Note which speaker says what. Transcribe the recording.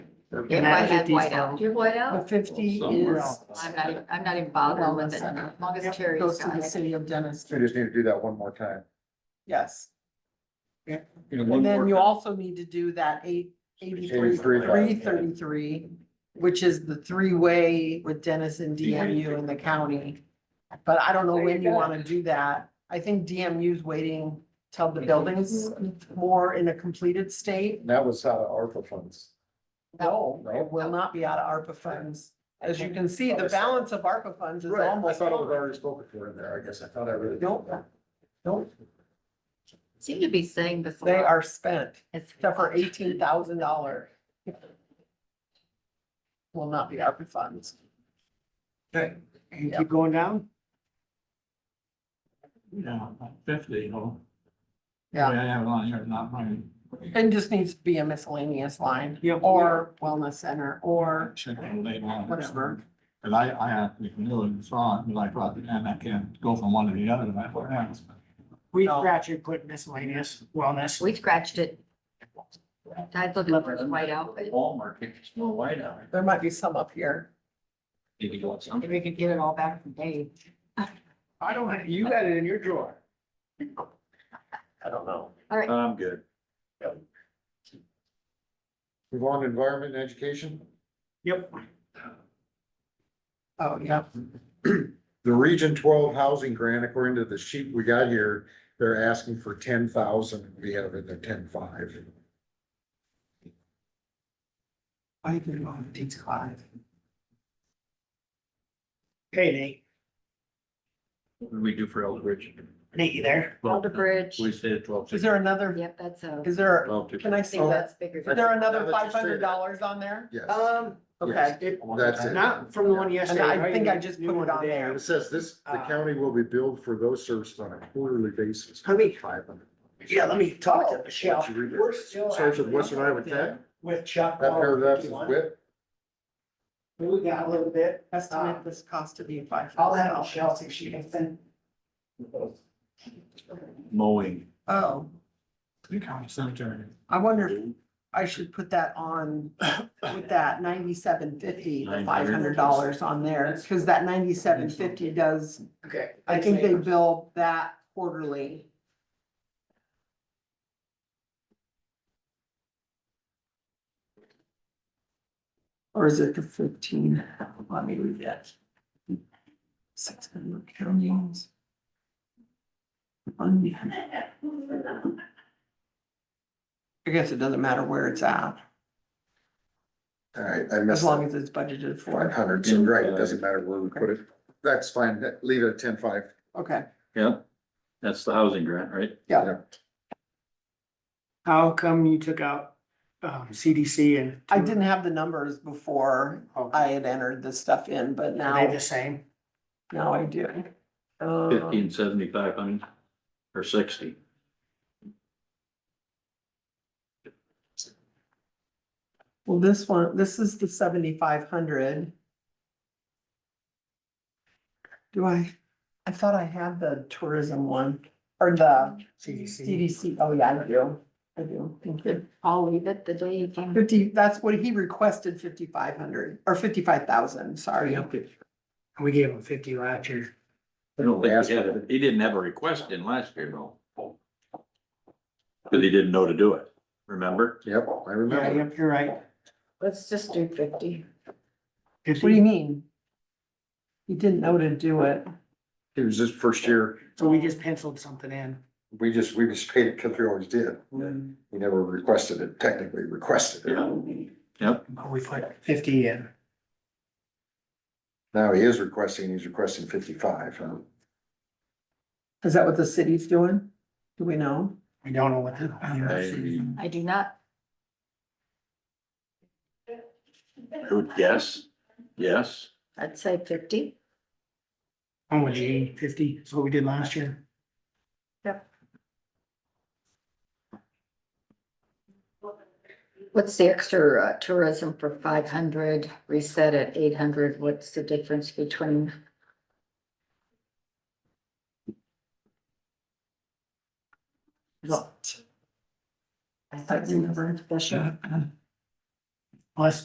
Speaker 1: If
Speaker 2: And
Speaker 1: I
Speaker 2: I
Speaker 1: had
Speaker 2: had
Speaker 1: whiteout, do you have
Speaker 2: The
Speaker 1: whiteout?
Speaker 2: fifty
Speaker 3: Somewhere
Speaker 2: is.
Speaker 3: else.
Speaker 1: I'm not, even- I'm not even bothered with it, as long as Terry's
Speaker 2: Goes to
Speaker 1: got
Speaker 2: the
Speaker 1: it.
Speaker 2: city of
Speaker 4: We
Speaker 2: Denison,
Speaker 4: just need to do that one more time.
Speaker 2: yes.
Speaker 3: And
Speaker 2: And then you also need to do that eight, eighty-three,
Speaker 4: 83,
Speaker 2: three thirty-three, which is the three-way with Denison, DMU and the county. But I don't know when you wanna do that. I think DMU's waiting till the building's more in a completed state.
Speaker 4: And that was out of ARPA funds. Oh,
Speaker 2: No, it will not be out of ARPA funds. As you can see, the balance of ARPA funds is
Speaker 4: Right, I
Speaker 2: almost
Speaker 4: thought it was
Speaker 2: gone.
Speaker 4: already spoken for in there, I guess, I thought I really.
Speaker 2: Nope, nope,
Speaker 1: Seem to be saying before.
Speaker 2: they are spent.
Speaker 1: It's-
Speaker 2: except for eighteen thousand dollar. Will not be ARPA funds.
Speaker 3: Okay,
Speaker 2: and
Speaker 3: keep going down? Yeah, like fifty, you know. Oh,
Speaker 2: Yeah.
Speaker 3: I have it on here, not mine.
Speaker 2: And just needs to be a miscellaneous line.
Speaker 3: Yep.
Speaker 2: Or wellness center or,
Speaker 3: Check the label on it.
Speaker 2: Whatever.
Speaker 3: Cause I, I actually knew and saw it, but I thought, man, I can't go from one to the other, and I thought, yeah. it's-
Speaker 5: We
Speaker 2: No.
Speaker 5: scratch it, put miscellaneous wellness.
Speaker 1: We scratched it. I was looking for the whiteout, but
Speaker 3: Walmart, it's more white out.
Speaker 2: there might be some up here.
Speaker 3: Maybe you want some.
Speaker 1: maybe we could get it all back from Dave.
Speaker 5: I don't, have- you got it in your drawer.
Speaker 2: I don't know.
Speaker 1: All right,
Speaker 3: I'm good.
Speaker 4: Move on to environment and education.
Speaker 5: Yep.
Speaker 2: Oh, yeah.
Speaker 4: The Region twelve housing grant, according to the sheet we got here, they're asking for ten thousand, we have in there ten five.
Speaker 2: I think on these five.
Speaker 5: Hey Nate,
Speaker 3: What do we do for Eldridge?
Speaker 5: Nate, you there?
Speaker 1: Elder
Speaker 6: uh,
Speaker 1: Bridge.
Speaker 3: We said twelve.
Speaker 2: Is there another,
Speaker 1: Yep, that's a,
Speaker 2: is there,
Speaker 3: Twelve
Speaker 2: can I
Speaker 1: I
Speaker 2: see
Speaker 1: think
Speaker 2: that?
Speaker 1: that's bigger.
Speaker 2: Is there
Speaker 4: Now
Speaker 2: another
Speaker 4: that you
Speaker 2: five
Speaker 4: say
Speaker 2: hundred
Speaker 4: that.
Speaker 2: dollars on there?
Speaker 4: Yes,
Speaker 5: Um.
Speaker 2: Okay.
Speaker 5: It,
Speaker 4: that's it.
Speaker 5: not from the one
Speaker 2: And
Speaker 5: yesterday.
Speaker 2: I
Speaker 5: right?
Speaker 2: think I just
Speaker 5: New
Speaker 2: put
Speaker 5: one
Speaker 2: it on
Speaker 5: today.
Speaker 2: there.
Speaker 4: It says this, the
Speaker 2: uh,
Speaker 4: county will be billed for those services on a quarterly basis.
Speaker 5: Let me-
Speaker 4: Five hundred.
Speaker 5: Yeah, let me
Speaker 2: Oh,
Speaker 5: talk to Michelle.
Speaker 4: Let you read it.
Speaker 5: Oh, We're still
Speaker 4: Starts with
Speaker 5: actually
Speaker 4: Western Iowa Tech.
Speaker 5: With Chuck.
Speaker 4: That paragraph is
Speaker 5: 151.
Speaker 4: WIP.
Speaker 5: We got a little bit.
Speaker 2: Estimate this cost to be five.
Speaker 5: I'll have Michelle see if she can send.
Speaker 3: Mowing.
Speaker 2: Oh,
Speaker 3: The county cemetery.
Speaker 2: I wonder if I should put that on with that ninety-seven fifty, the five hundred dollars on there, because that ninety-seven fifty does,
Speaker 5: Okay.
Speaker 2: I think they bill that quarterly. Or is it the fifteen? Let me read that. Six hundred counties. I guess it doesn't matter where it's at,
Speaker 4: All right, I
Speaker 2: as
Speaker 4: missed
Speaker 2: long as it's budgeted
Speaker 4: five
Speaker 2: for,
Speaker 4: hundred, so right, it doesn't matter where we put it. That's fine, That- leave it at ten five.
Speaker 2: okay.
Speaker 6: Yeah, that's the housing grant, right?
Speaker 5: How come you took out, um, CDC and?
Speaker 2: I didn't have the numbers before I had entered this stuff in, but
Speaker 5: Are they
Speaker 2: now,
Speaker 5: the same?
Speaker 2: now I do. Uh,
Speaker 6: Fifteen seventy-five hundred or sixty.
Speaker 2: Well, this one, this is the seventy-five hundred. Do I, I thought I had the tourism one, or the
Speaker 5: CDC.
Speaker 2: CDC, oh yeah, I do, I do, thank you.
Speaker 1: I'll leave it the day you came.
Speaker 2: Fifty, that's what he requested, fifty-five hundred, or fifty-five thousand, sorry.
Speaker 5: We gave them fifty last year.
Speaker 6: I don't think he had, a- he didn't have a request in last year, though. Cause he didn't know to do it, remember?
Speaker 4: Yep, I
Speaker 5: Yeah,
Speaker 4: remember.
Speaker 5: yep, you're right.
Speaker 1: Let's just do fifty.
Speaker 2: What do you mean? He didn't know to do it.
Speaker 4: It was just first year,
Speaker 5: So we just penciled something in.
Speaker 4: we just, we just paid it because we always did. We never requested it, technically requested it.
Speaker 6: Yep,
Speaker 5: But we put fifty in.
Speaker 4: Now he is requesting, he's requesting fifty-five, huh?
Speaker 2: Is that what the city's doing? Do we know?
Speaker 5: We don't know what to.
Speaker 6: I,
Speaker 1: I do not,
Speaker 6: I would guess, yes.
Speaker 1: I'd say fifty.
Speaker 5: Oh, gee, fifty, that's what we did last year.
Speaker 1: What's the extra uh, tourism for five hundred, reset at eight hundred? What's the difference between? Uh, Well, I thought you were special.
Speaker 5: Less